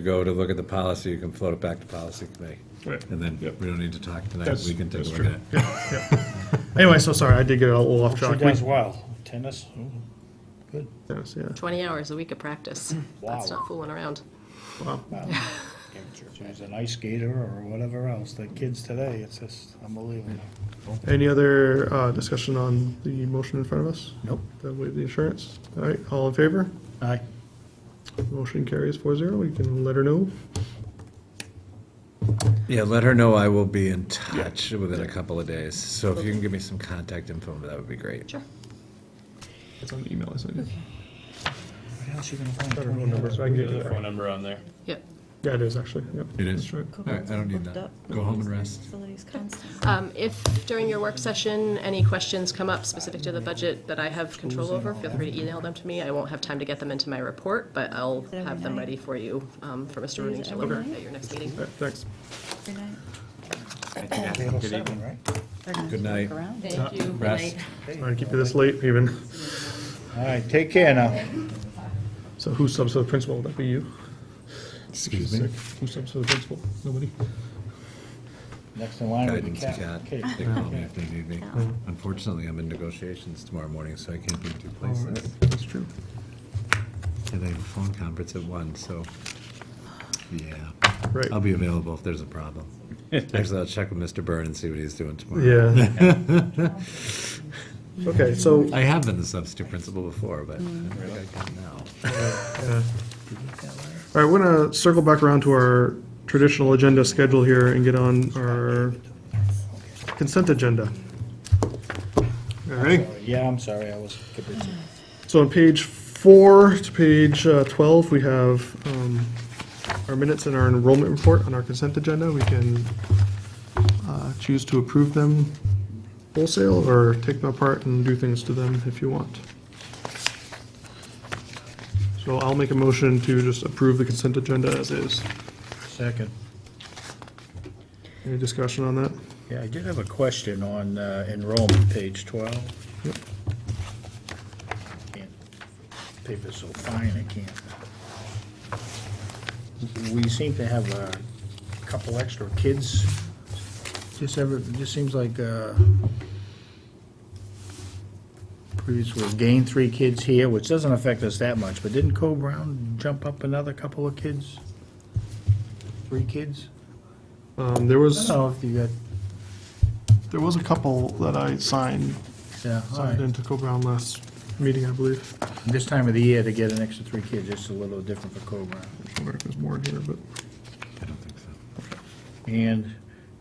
go to look at the policy, you can float it back to policy committee. Right. And then Yep. we don't need to talk tonight, That's- we can take a that's look at it. true. Anyway, so sorry, I did get a little off She track. does well, tennis, ooh, Yes, yeah. 20 hours a week of practice. That's Wow. not fooling around. wow. She's an ice skater or whatever else, the kids today, it's just unbelievable. Any other uh, discussion on the motion in front of us? Nope. That waive the insurance? All right, all in favor? Aye. Motion carries four zero. We can let her know. Yeah, let her know I will be in touch within a couple of days, so if you can give me some contact info, that would be great. Sure. It's on the email I sent you. What else you gonna find? Got her phone number, so I can get it back. number on there. Yep. Yeah, it is actually, yep. It is? That's right. All right, I don't need that. Go home and rest. Facilities constant. Um, If during your work session, any questions come up specific to the budget that I have control over, feel free to email them to me. I won't have time to get them into my report, but I'll it every have them night? ready for you, um, for Mr. Rooney to every deliver night? at your next meeting. All right, thanks. Good night. Little oh seven, right? They're gonna Good have to night. look around. Thank you. Rest. Trying to keep you this late even. All right, take care now. So who subs for the principal? Would that be you? Excuse me? Who subs for the principal? Nobody? Next in line will be Guidance, Cat. Kat. Kate. They call me if they need me. Unfortunately, I'm in negotiations tomorrow morning, so I can't be in two All right, places. That's true. And I have a phone conference at one, so, yeah. Right. I'll be available if there's a problem. Actually, I'll check with Mr. Byrne and see what he's doing tomorrow. Yeah. Okay, so I have been the substitute principal before, but I don't think I can now. All right, we're gonna circle back around to our traditional agenda schedule here and get on our consent agenda. All right, Yeah, I'm sorry, I was confused. so on page four to page uh, twelve, we have um, our minutes and our enrollment report on our consent agenda. We can uh, choose to approve them wholesale or take them apart and do things to them if you want. So I'll make a motion to just approve the consent agenda as is. Second. Any discussion on that? Yeah, I did have a question on uh, enrollment, page 12. Yep. Can't- Paper's so fine, I can't. We seem to have a couple extra kids. Just ever, just seems like uh, previously we gained three kids here, which doesn't affect us that much, but didn't Co Brown jump up another couple of kids? Three kids? Um, there I don't was, know if you got, there was a couple that I signed, yeah, all right. signed into Co-Brown last meeting, I believe. This time of the year, to get an extra three kids, it's a little different for Cobra. I wonder if there's more in here, but. I don't think so. And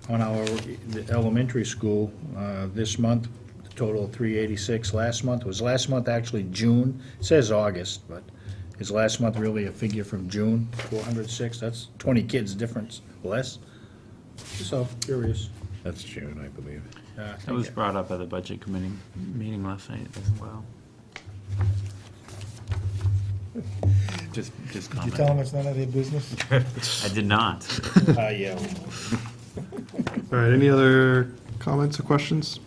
on our, the elementary school, uh, this month, the total of three eighty-six. Last month, was last month actually June? It says August, but is last month really a figure from June? Four hundred six, that's twenty kids difference, less? So, curious. That's June, I believe. Uh, That was brought up at the budget committee meeting last night as well. Just, just comment. them it's none of their business? I did not. Uh, yeah. All right, any other comments or questions?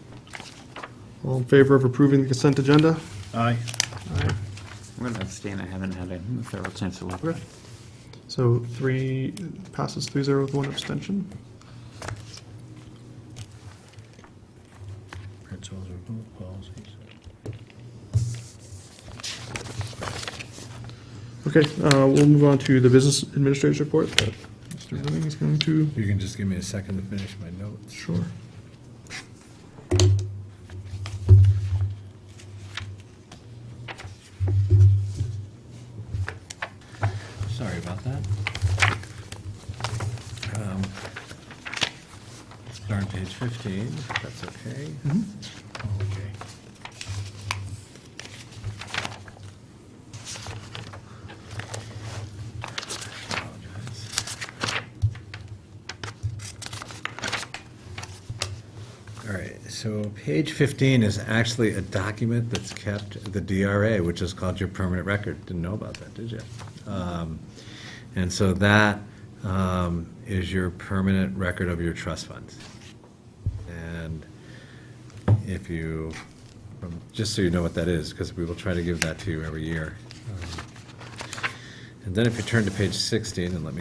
All in favor of approving the consent agenda? Aye. I'm gonna abstain. I haven't had a thorough chance to look. Okay. So three, passes three zero with one abstention. Principals approve policies. Okay, uh, we'll move on to the business administrator's report that Mr. Rooney is going to. You can just give me a second to finish my notes. Sure. Sorry about that. Um, Start on page 15, if that's okay. Okay. All right, so page 15 is actually a document that's kept at the DRA, which is called your permanent record. Didn't know about that, did you? Um, And so that um, is your permanent record of your trust funds. And if you, um, just so you know what that is, because we will try to give that to you every year. Um, And then if you turn to page 16, and let me